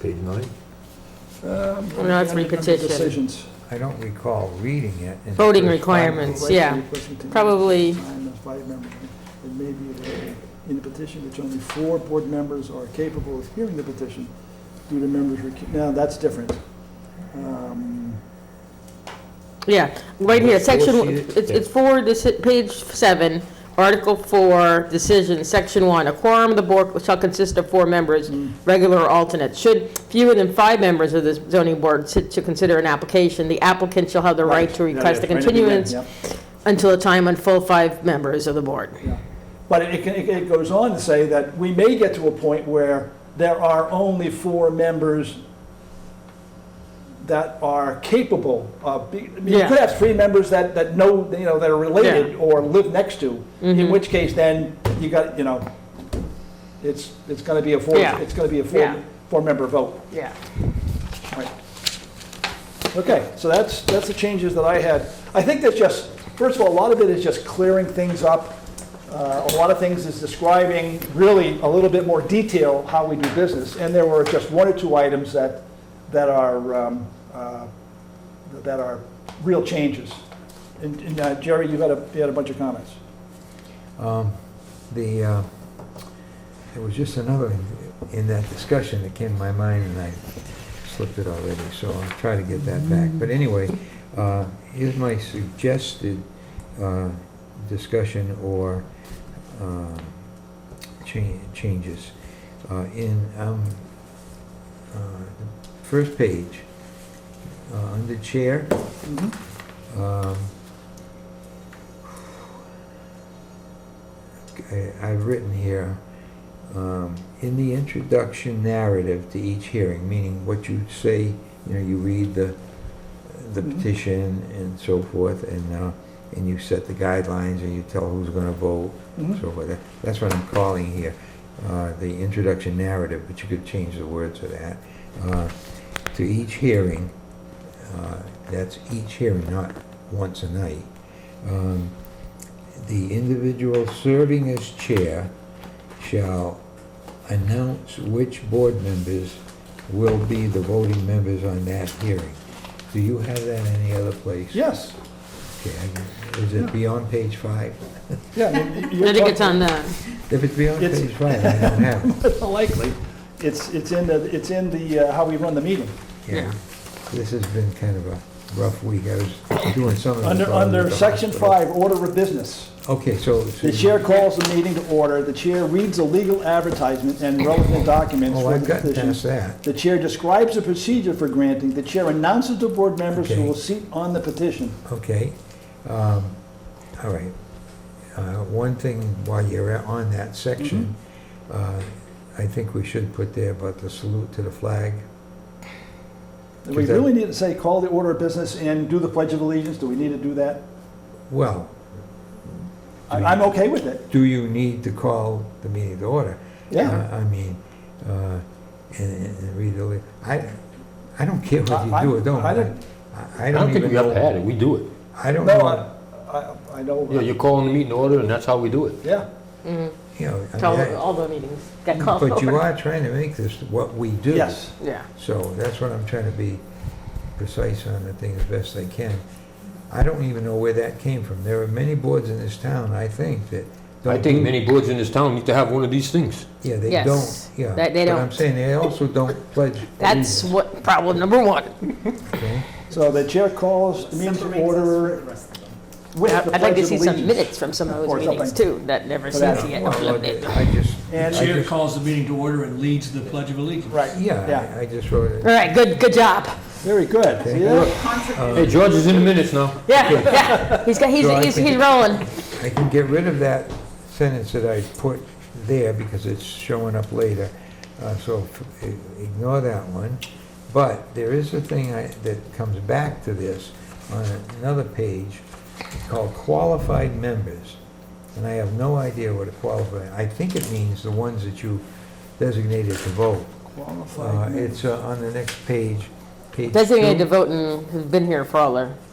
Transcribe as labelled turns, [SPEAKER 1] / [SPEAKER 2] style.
[SPEAKER 1] Page nine?
[SPEAKER 2] Um,
[SPEAKER 3] No, it's
[SPEAKER 2] under number
[SPEAKER 3] repetition.
[SPEAKER 2] Decisions.
[SPEAKER 4] I don't recall reading it. in the
[SPEAKER 3] Voting
[SPEAKER 4] first five
[SPEAKER 3] requirements.
[SPEAKER 4] minutes.
[SPEAKER 3] Yeah, probably-
[SPEAKER 2] Time of five members. It may be that in the petition which only four board members are capable of hearing the petition due to members, recu- now, that's different. Um,
[SPEAKER 3] Yeah, right here,
[SPEAKER 1] Four
[SPEAKER 3] section,
[SPEAKER 1] seated-
[SPEAKER 3] it's, it's four, this, page seven, article four, decision, section one. A quorum of the board shall consist of four members, regular or alternate. Should fewer than five members of the zoning board sit to consider an application, the applicant shall have the right to
[SPEAKER 2] Right. Yeah,
[SPEAKER 3] request a
[SPEAKER 2] that's right at the end,
[SPEAKER 3] continuance
[SPEAKER 2] yeah,
[SPEAKER 3] until a time when full five members of the board.
[SPEAKER 2] yeah. But it, can- it it goes on to say that we may get to a point where there are only four members that are capable of, be- I mean, you
[SPEAKER 3] Yeah.
[SPEAKER 2] could have three members that, that know, you know, that are related or live next to,
[SPEAKER 3] Mm-hmm.
[SPEAKER 2] in which case then you got, you know, it's, it's gonna be a four,
[SPEAKER 3] Yeah.
[SPEAKER 2] it's gonna be a
[SPEAKER 3] Yeah.
[SPEAKER 2] four, four-member vote.
[SPEAKER 3] Yeah.
[SPEAKER 2] Right. Okay, so that's, that's the changes that I had. I think that's just, first of all, a lot of it is just clearing things up. Uh, A lot of things is describing really a little bit more detail how we do business. And there were just one or two items that, that are, um, uh, that are real changes. And and, uh, Jerry, you had a, you had a bunch of comments.
[SPEAKER 4] Um, The, uh, there was just another in that discussion that came to my mind, and I slipped it already, so I'll try to get that back. But anyway, uh, here's my suggested uh, discussion or uh, cha- changes. Uh, In, um, uh, the first page, uh, under chair, um, I- I've written here, um, in the introduction narrative to each hearing, meaning what you say, you know, you read the, the
[SPEAKER 2] Mhm.
[SPEAKER 4] petition and so forth, and, uh, and you set the guidelines, and you tell who's gonna vote,
[SPEAKER 2] Mhm.
[SPEAKER 4] so forth. That- That's what I'm calling here, uh, the introduction narrative, but you could change the word to that. Uh, To each hearing, uh, that's each hearing, not once a night. Um, The individual serving as chair shall announce which board members will be the voting members on that hearing. Do you have that any other place?
[SPEAKER 2] Yes,
[SPEAKER 4] Okay, I- Is it beyond page five?
[SPEAKER 2] yeah. I mean,
[SPEAKER 3] I
[SPEAKER 2] you're
[SPEAKER 3] think it's
[SPEAKER 2] talking-
[SPEAKER 3] on the,
[SPEAKER 4] If it's beyond
[SPEAKER 2] It's-
[SPEAKER 4] page five, I don't have it.
[SPEAKER 2] Likely. It's, it's in the, it's in the, uh, how we run the meeting.
[SPEAKER 4] Yeah, this has been kind of a rough week. I was doing some of this.
[SPEAKER 2] Under,
[SPEAKER 4] while I was
[SPEAKER 2] under
[SPEAKER 4] at the
[SPEAKER 2] section
[SPEAKER 4] hospital.
[SPEAKER 2] five, order of business.
[SPEAKER 4] Okay, so.
[SPEAKER 2] The chair calls the meeting to order, the chair reads the legal advertisement and relevant documents
[SPEAKER 4] Oh,
[SPEAKER 2] for
[SPEAKER 4] I've
[SPEAKER 2] the
[SPEAKER 4] gotten
[SPEAKER 2] petition.
[SPEAKER 4] past that.
[SPEAKER 2] The chair describes the procedure for granting, the chair announces to board members who
[SPEAKER 4] Okay.
[SPEAKER 2] will seat on the petition.
[SPEAKER 4] Okay. Um, All right. Uh, One thing while you're on that section,
[SPEAKER 2] Mm-hmm.
[SPEAKER 4] uh, I think we should put there about the salute to the flag.
[SPEAKER 2] We
[SPEAKER 4] Is that-
[SPEAKER 2] really need to say, call the order of business and do the pledge of allegiance, do we need to do that?
[SPEAKER 4] Well,
[SPEAKER 2] I- I'm okay with it,
[SPEAKER 4] do you need to call the meeting to order?
[SPEAKER 2] yeah.
[SPEAKER 4] I I mean, uh, and and read the, li- I, I don't care what you
[SPEAKER 2] I-
[SPEAKER 4] do or
[SPEAKER 2] I-
[SPEAKER 4] don't.
[SPEAKER 2] I don't-
[SPEAKER 4] I- I
[SPEAKER 1] I don't think
[SPEAKER 4] even
[SPEAKER 1] we
[SPEAKER 4] know-
[SPEAKER 1] ever had it, we do it.
[SPEAKER 4] I don't
[SPEAKER 2] No,
[SPEAKER 4] know,
[SPEAKER 2] I, I- I
[SPEAKER 1] Yeah,
[SPEAKER 2] know,
[SPEAKER 1] you're calling the meeting to order, and that's how we do it.
[SPEAKER 2] yeah,
[SPEAKER 4] you know, I
[SPEAKER 3] all,
[SPEAKER 4] mean,
[SPEAKER 3] the-
[SPEAKER 4] I-
[SPEAKER 3] all the meetings got called
[SPEAKER 4] but you
[SPEAKER 3] over.
[SPEAKER 4] are trying to make this what we do.
[SPEAKER 2] yes.
[SPEAKER 3] Yeah,
[SPEAKER 4] So that's what I'm trying to be precise on the thing as best I can. I don't even know where that came from. There are many boards in this town, I think, that don't.
[SPEAKER 1] I think
[SPEAKER 4] do-
[SPEAKER 1] many boards in this town need to have one of these things.
[SPEAKER 4] Yeah, they
[SPEAKER 3] Yes,
[SPEAKER 4] don't, yeah.
[SPEAKER 3] that they
[SPEAKER 4] But I'm
[SPEAKER 3] don't.
[SPEAKER 4] saying they also don't pledge allegiance,
[SPEAKER 3] that's what, problem number one.
[SPEAKER 4] okay?
[SPEAKER 2] So the chair calls the meeting to order with the
[SPEAKER 3] I'd
[SPEAKER 2] pledge
[SPEAKER 3] like to
[SPEAKER 2] of
[SPEAKER 3] see some
[SPEAKER 2] allegiance.
[SPEAKER 3] minutes from some of
[SPEAKER 2] Or
[SPEAKER 3] those meetings too, that never
[SPEAKER 2] something.
[SPEAKER 3] seems to get
[SPEAKER 4] Well,
[SPEAKER 3] eliminated.
[SPEAKER 4] I just, I
[SPEAKER 2] And-
[SPEAKER 5] Chair
[SPEAKER 4] just,
[SPEAKER 5] calls the meeting to order and leads the Pledge of Allegiance.
[SPEAKER 2] Right,
[SPEAKER 4] yeah,
[SPEAKER 2] yeah,
[SPEAKER 4] I I just wrote
[SPEAKER 3] All
[SPEAKER 4] it.
[SPEAKER 3] right, good, good job.
[SPEAKER 2] very good, see that?
[SPEAKER 4] Uh,
[SPEAKER 1] Hey, George is in the minutes now.
[SPEAKER 3] Yeah, yeah, he's got, he's,
[SPEAKER 4] So I
[SPEAKER 3] he's,
[SPEAKER 4] think-
[SPEAKER 3] he's rolling.
[SPEAKER 4] I can get rid of that sentence that I put there because it's showing up later. Uh, So f- i- ignore that one. But there is a thing I- that comes back to this on another page called qualified members. And I have no idea what a qualified, I think it means the ones that you designated to vote. Uh,
[SPEAKER 2] Qualified.
[SPEAKER 4] It's uh, on the next page, page two.
[SPEAKER 3] Designated to vote and has been here for all our